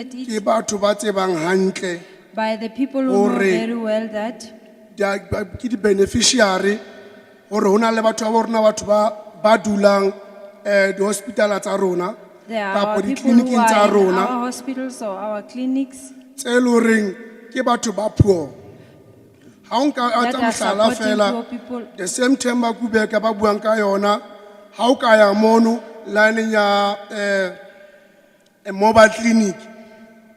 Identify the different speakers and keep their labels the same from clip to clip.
Speaker 1: it
Speaker 2: ke batho ba tsebang hantle
Speaker 1: by the people who know
Speaker 2: Hore-
Speaker 1: very well that
Speaker 2: dia- ba- ke di-beneficiary gore go na le batho ba bo rona batho ba- ba dulang um di-hospitala tsa rona
Speaker 1: there
Speaker 2: kapo
Speaker 1: are people who
Speaker 2: ditleliniking tsa
Speaker 1: are in
Speaker 2: rona
Speaker 1: our hospitals or our clinics
Speaker 2: tse e le goreng ke batho ba puo ga o nka a
Speaker 1: that
Speaker 2: tsa
Speaker 1: are
Speaker 2: motlhala
Speaker 1: supporting
Speaker 2: fela
Speaker 1: poor people.
Speaker 2: the same time ba kubeka ba buang ka yona ga o ka ya mono lineng ya um mobile clinic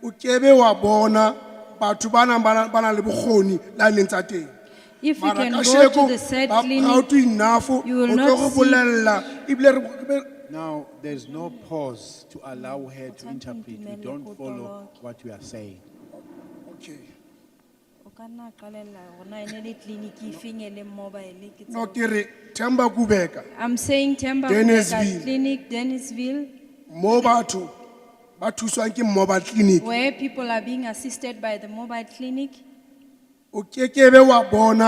Speaker 2: o kebe wa bona batho ba nang ba na- ba nang le bokgoni lineng tsa teng
Speaker 1: If we
Speaker 2: mara
Speaker 1: can
Speaker 2: ka
Speaker 1: go to
Speaker 2: sheko
Speaker 1: the said
Speaker 2: ba
Speaker 1: clinic,
Speaker 2: proud enough o
Speaker 1: you will
Speaker 2: tlo
Speaker 1: not
Speaker 2: go
Speaker 1: see-
Speaker 2: bolelela ebile re- re-
Speaker 3: Now, there's no pause to allow her to interpret. We don't follow what we are saying.
Speaker 2: okay
Speaker 4: O ka nna qalella hore na e ne le clinic e feng e leng mobile ke
Speaker 2: no
Speaker 4: tseo.
Speaker 2: ke re themba kubeka
Speaker 1: I'm saying Temba
Speaker 2: Dennisville.
Speaker 1: Clinic, Dennisville,
Speaker 2: mo batho ba thuswang ke mobile clinic
Speaker 1: where people are being assisted by the mobile clinic.
Speaker 2: o kekebe wa bona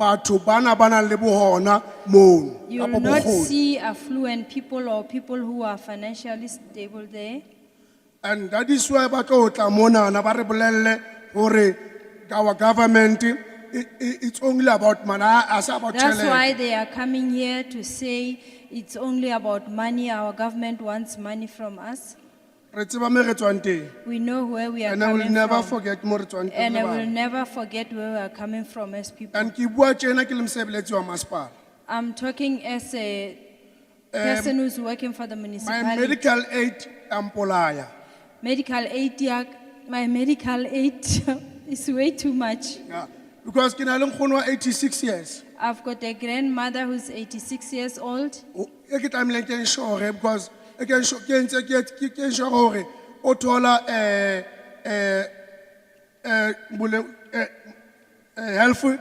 Speaker 2: batho bana ba nang le bohona mono
Speaker 1: You
Speaker 2: kapo
Speaker 1: will not
Speaker 2: bokgoni
Speaker 1: see affluent people or people who are financially stable there.
Speaker 2: and that is why ba tlo tla monana ba re bolelele gore our government e, i- i- it's only about money a se about
Speaker 1: That's why
Speaker 2: tšhelete
Speaker 1: they are coming here to say it's only about money, our government wants money from us.
Speaker 2: re tseba me re tswang teng
Speaker 1: We know where we are
Speaker 2: and i will
Speaker 1: coming
Speaker 2: never
Speaker 1: from.
Speaker 2: forget mo re tswang teng
Speaker 1: And I
Speaker 2: le
Speaker 1: will
Speaker 2: bana.
Speaker 1: never forget where we are coming from as people.
Speaker 2: and ke bua tjena ke le mosebeletsi wa masepala
Speaker 1: I'm talking as a person who's working for the
Speaker 2: Um, my
Speaker 1: municipality.
Speaker 2: medical aid ampolaya
Speaker 1: Medical aid, yeah, my medical aid is way too much.
Speaker 2: Yeah. because ke na le nkgono wa 86 years
Speaker 1: I've got a grandmother who's 86 years old.
Speaker 2: O- e ke tlameileng ke ensure because e ke ensu- ke ntse ke ke- ke ensure gore o thola eh, eh, eh, bole- eh, eh, health eh,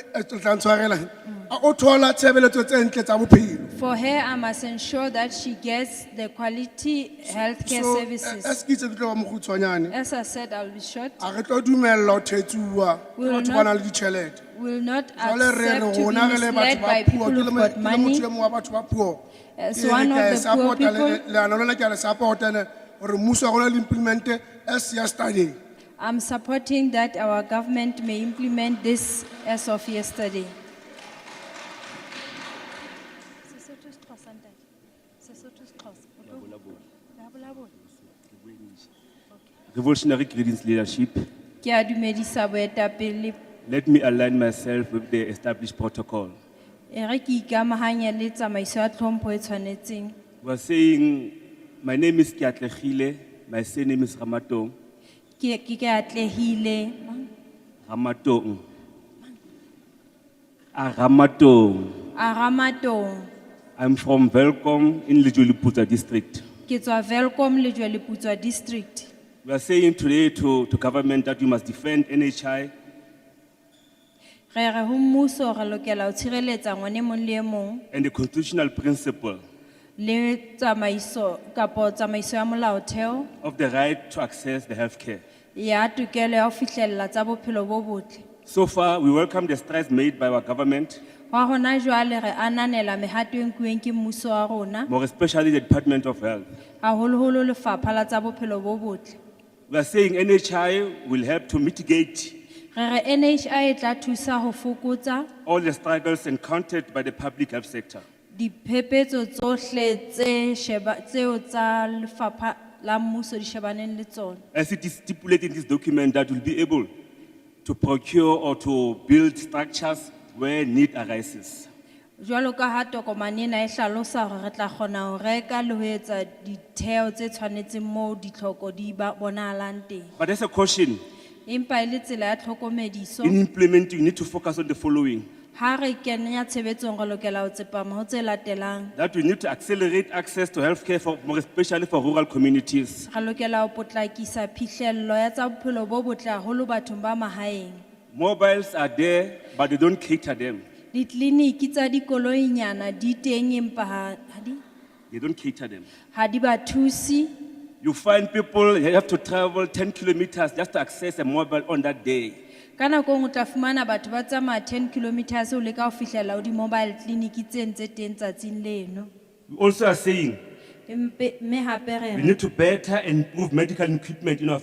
Speaker 2: eh, o tla ntshwarela.
Speaker 1: Mm.
Speaker 2: A- o thola tshebeletso tse ntle tsa bophelo
Speaker 1: For her, I must ensure that she gets the quality healthcare
Speaker 2: so eh, eh,
Speaker 1: services.
Speaker 2: se ke itse ke tlo ba mokgutshwanyane
Speaker 1: As I said, I'll be short.
Speaker 2: a re tlo dumella ho thetsuwa ke
Speaker 1: We will
Speaker 2: batho ba
Speaker 1: not-
Speaker 2: nang le ditjhelete
Speaker 1: Will not
Speaker 2: jwale re re
Speaker 1: accept to be
Speaker 2: rona re le batho
Speaker 1: misled
Speaker 2: ba
Speaker 1: by
Speaker 2: puo
Speaker 1: people
Speaker 2: ke le
Speaker 1: who've
Speaker 2: mo-
Speaker 1: got
Speaker 2: ke le motho
Speaker 1: money.
Speaker 2: e mong wa batho ba puo
Speaker 1: As
Speaker 2: Ke re
Speaker 1: one of
Speaker 2: ke a
Speaker 1: the
Speaker 2: e
Speaker 1: poor
Speaker 2: support-a le-
Speaker 1: people,
Speaker 2: leano lena ke a le support-a le- hore mmuso wa rona le implement-e as yesterday.
Speaker 1: I'm supporting that our government may implement this as of yesterday.
Speaker 4: Sesotho se Xhosa ntate. Sesotho se Xhosa. O tlo- Ya bolabola.
Speaker 5: Revolutionary Greens leadership,
Speaker 1: Ke a dumedisa boetapele.
Speaker 5: let me align myself with the established protocol.
Speaker 1: E re ke ikamahanya le tsamaiso ya tlhompho e tshwanetseng.
Speaker 5: We are saying, my name is Kiatlechile, my surname is Ramatong.
Speaker 1: Ke ke ke atlehile.
Speaker 5: Ramatong. Ah, Ramatong.
Speaker 1: A Ramatong.
Speaker 5: I'm from Velkom in Lijulipuza district.
Speaker 1: Ke tswa Welkom Lejweleputswa district.
Speaker 5: We are saying today to, to government that we must defend NHI
Speaker 1: Re re ho mmuso re lokela ho tshireletsa ngwane mong le e mong
Speaker 5: and the constitutional principle
Speaker 1: le tsamaiso kapo tsamaiso ya molaotheo
Speaker 5: of the right to access the healthcare.
Speaker 1: ya tokelo ya ho fihlella tsa bophelo bo botle.
Speaker 5: So far, we welcome the strides made by our government,
Speaker 1: Wa hona jwale re ananela mehato e nkuweng ke mmuso wa rona,
Speaker 5: more especially the Department of Health.
Speaker 1: haholoholo lefapha la tsa bophelo bo botle.
Speaker 5: We are saying NHI will help to mitigate
Speaker 1: Re re NHI e tla thusa ho fokotsa
Speaker 5: all the struggles encountered by the public health sector.
Speaker 1: diphephetso tsohle tse sheba, tseo tsa lefapha la mmuso di shebaneng le tsona.
Speaker 5: As it is stipulated in this document, that will be able to procure or to build structures where need arises.
Speaker 1: Jwalo ka ha tokomane ena e hlalosa hore re tla kgona ho reka le ho etsa ditheo tse tshwanetseng moo ditlhoko di ba bonahalang teng.
Speaker 5: But as a caution,
Speaker 1: Empa e le tsela ya tlhokomediso,
Speaker 5: in implementing, you need to focus on the following
Speaker 1: ha re kenya tshebetsong re lokela ho tsepama ho tse latelang.
Speaker 5: that we need to accelerate access to healthcare, for, more especially for rural communities.
Speaker 1: Re lokela ho potlakisa phihlello ya tsa bophelo bo botle haholo bathong ba mahaeng.
Speaker 5: Mobiles are there, but they don't cater them.
Speaker 1: Ditleliniki tsa dikoloinyana di teng empa ha ha di
Speaker 5: They don't cater them.
Speaker 1: ha di ba thusi.
Speaker 5: You find people they have to travel 10 kilometers just to access a mobile on that day.
Speaker 1: Ka nako e nngwe o tla fumana batho ba tsamaya ten kilometers ho leka ho fihlella ho di-mobile clinic tse ntse teng tsatsing leno.
Speaker 5: We also are saying
Speaker 1: Re empe- mme hape re re
Speaker 5: We need to better and improve medical equipment in our